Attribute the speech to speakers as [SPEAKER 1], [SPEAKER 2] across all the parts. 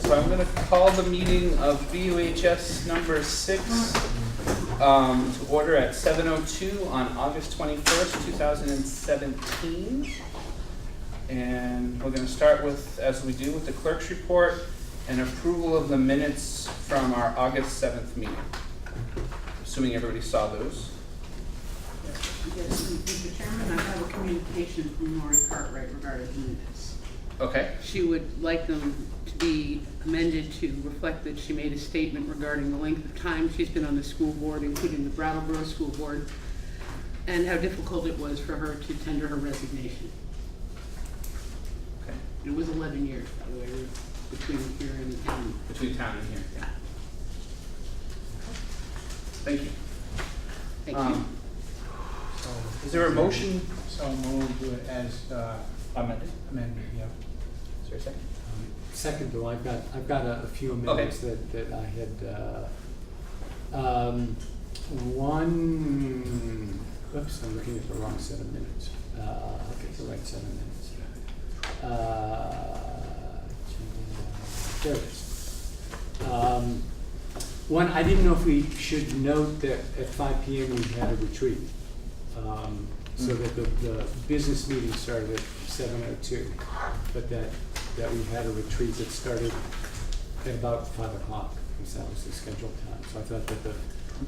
[SPEAKER 1] so I'm gonna call the meeting of BUHS number six um, to order at seven oh two on August twenty-first, two thousand and seventeen. And we're gonna start with, as we do, with the clerk's report and approval of the minutes from our August seventh meeting. Assuming everybody saw those.
[SPEAKER 2] Yes, and Mr. Chairman, I have a communication from Lori Cartwright regarding the minutes.
[SPEAKER 1] Okay,
[SPEAKER 2] She would like them to be amended to reflect that she made a statement regarding the length of time she's been on the school board, including the Brattleboro School Board, and how difficult it was for her to tender her resignation.
[SPEAKER 1] okay,
[SPEAKER 2] It was eleven years, by the way, between here and, and,
[SPEAKER 1] between town and here,
[SPEAKER 2] yeah,
[SPEAKER 1] thank you.
[SPEAKER 2] thank you.
[SPEAKER 1] Um, Is there a motion
[SPEAKER 3] So moved as uh,
[SPEAKER 1] amended?
[SPEAKER 3] amended, yeah.
[SPEAKER 1] Is there a second?
[SPEAKER 4] Second, though, I've got, I've got a a few amendments that, that I had, uh, um, one, oops, I'm looking at the wrong set of minutes. Uh, okay, the right set of minutes. Uh, There it is. Um, One, I didn't know if we should note that at five P M we had a retreat. um, So that the, the business meeting started at seven oh two, but that, that we had a retreat that started at about five o'clock, because that was the scheduled time. So I thought that the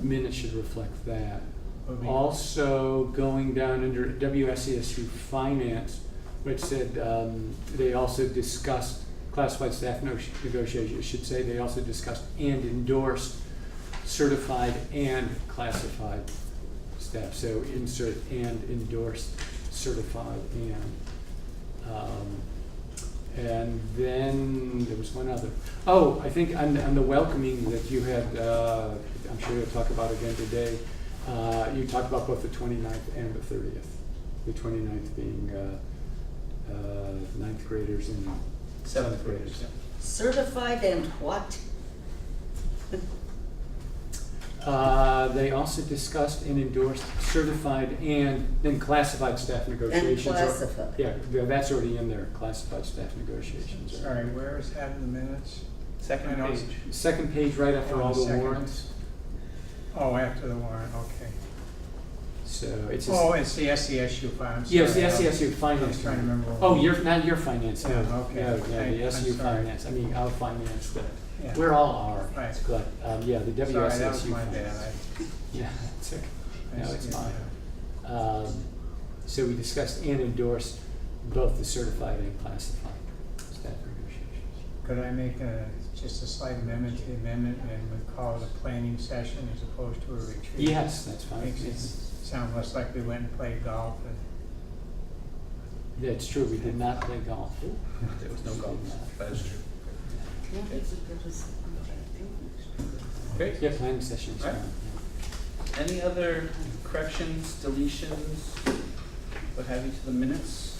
[SPEAKER 4] minutes should reflect that.
[SPEAKER 3] Would we-
[SPEAKER 4] Also, going down under WSESU Finance, which said, um, they also discussed classified staff no- negotiations, It should say they also discussed and endorsed certified and classified staff, so insert and endorsed certified and. Um, and then there was one other. Oh, I think on, on the welcoming that you had, uh, I'm sure you'll talk about again today, uh, you talked about both the 29th and the thirtieth. The 29th being, uh, uh, ninth graders and seventh graders.
[SPEAKER 5] Certified and what?
[SPEAKER 4] Uh, they also discussed and endorsed certified and then classified staff negotiations. or-
[SPEAKER 5] classified.
[SPEAKER 4] Yeah, th- that's already in there, classified staff negotiations. or-
[SPEAKER 3] Sorry, where is that in the minutes?
[SPEAKER 1] Second
[SPEAKER 3] I know
[SPEAKER 1] page.
[SPEAKER 3] it's-
[SPEAKER 4] Second page right after all the
[SPEAKER 3] Second.
[SPEAKER 4] warrants.
[SPEAKER 3] Oh, after the warrant, okay.
[SPEAKER 4] So it's just.
[SPEAKER 3] Oh, it's the SESU file, I'm sorry.
[SPEAKER 4] Yes, the SESU
[SPEAKER 3] I
[SPEAKER 4] finance.
[SPEAKER 3] was trying to remember.
[SPEAKER 4] Oh, your, not your finance, no,
[SPEAKER 3] Yeah, okay.
[SPEAKER 4] no, no,
[SPEAKER 3] Hey,
[SPEAKER 4] the
[SPEAKER 3] I'm
[SPEAKER 4] SU
[SPEAKER 3] sorry.
[SPEAKER 4] finance, I mean, our finance, but
[SPEAKER 3] Yeah.
[SPEAKER 4] we're all our.
[SPEAKER 3] Right.
[SPEAKER 4] But, um, yeah, the WSSU
[SPEAKER 3] Sorry,
[SPEAKER 4] finance.
[SPEAKER 3] that was my bad.
[SPEAKER 4] Yeah, it's okay,
[SPEAKER 3] I- I
[SPEAKER 4] no, it's
[SPEAKER 3] see it
[SPEAKER 4] fine.
[SPEAKER 3] now.
[SPEAKER 4] Um, so we discussed and endorsed both the certified and classified staff negotiations.
[SPEAKER 3] Could I make a, just a slight amendment to the amendment and we call it a planning session as opposed to a retreat?
[SPEAKER 4] Yes, that's fine,
[SPEAKER 3] Makes it
[SPEAKER 4] It's-
[SPEAKER 3] sound less like we went and played golf and
[SPEAKER 4] that's true, we did not play golf.
[SPEAKER 1] There was no golf, that is true. Okay,
[SPEAKER 4] Yeah, planning sessions,
[SPEAKER 1] Right.
[SPEAKER 4] yeah.
[SPEAKER 1] any other corrections, deletions, what have you to the minutes?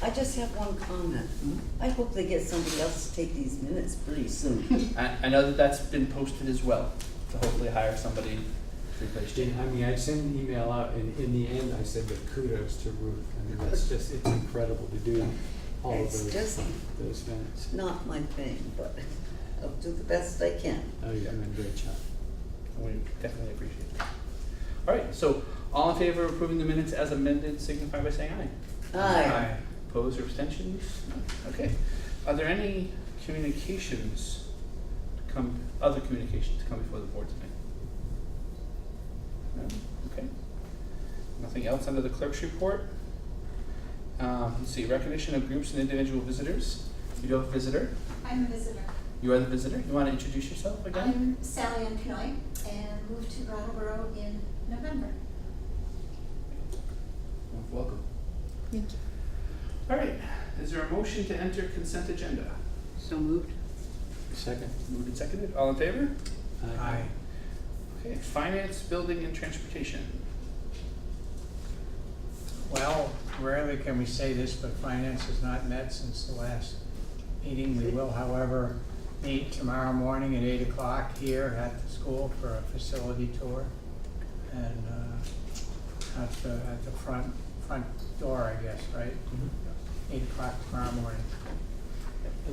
[SPEAKER 5] I just have one comment. I hope they get somebody else to take these minutes pretty soon.
[SPEAKER 1] I, I know that that's been posted as well, to hopefully hire somebody to replace Jane.
[SPEAKER 4] Jane, I mean, I sent an email out, and in the end, I said, but kudos to Ruth. I mean, that's just, it's incredible to do all of
[SPEAKER 5] It's
[SPEAKER 4] those,
[SPEAKER 5] just
[SPEAKER 4] those events.
[SPEAKER 5] not my thing, but I'll do the best I can.
[SPEAKER 4] Oh, you're doing a great job.
[SPEAKER 1] We definitely appreciate that. All right, so all in favor of approving the minutes as amended, signify by saying aye.
[SPEAKER 5] Aye.
[SPEAKER 1] Opposed or abstentions? Okay. Are there any communications to come, other communications to come before the board tonight? No? Okay. Nothing else under the clerk's report? Um, let's see, recognition of groups and individual visitors. You do have a visitor.
[SPEAKER 6] I'm a visitor.
[SPEAKER 1] You are the visitor. You want to introduce yourself again?
[SPEAKER 6] I'm Sally M. Pinoy and moved to Brattleboro in November.
[SPEAKER 1] Welcome.
[SPEAKER 2] Thank you.
[SPEAKER 1] All right. Is there a motion to enter consent agenda?
[SPEAKER 2] So moved?
[SPEAKER 4] Second?
[SPEAKER 1] Moved and seconded. All in favor?
[SPEAKER 3] aye.
[SPEAKER 1] Okay. Finance, building, and transportation.
[SPEAKER 3] Well, rarely can we say this, but finance has not met since the last meeting. We will, however, meet tomorrow morning at eight o'clock here at the school for a facility tour. And uh, at the, at the front, front door, I guess, right? Eight o'clock tomorrow morning.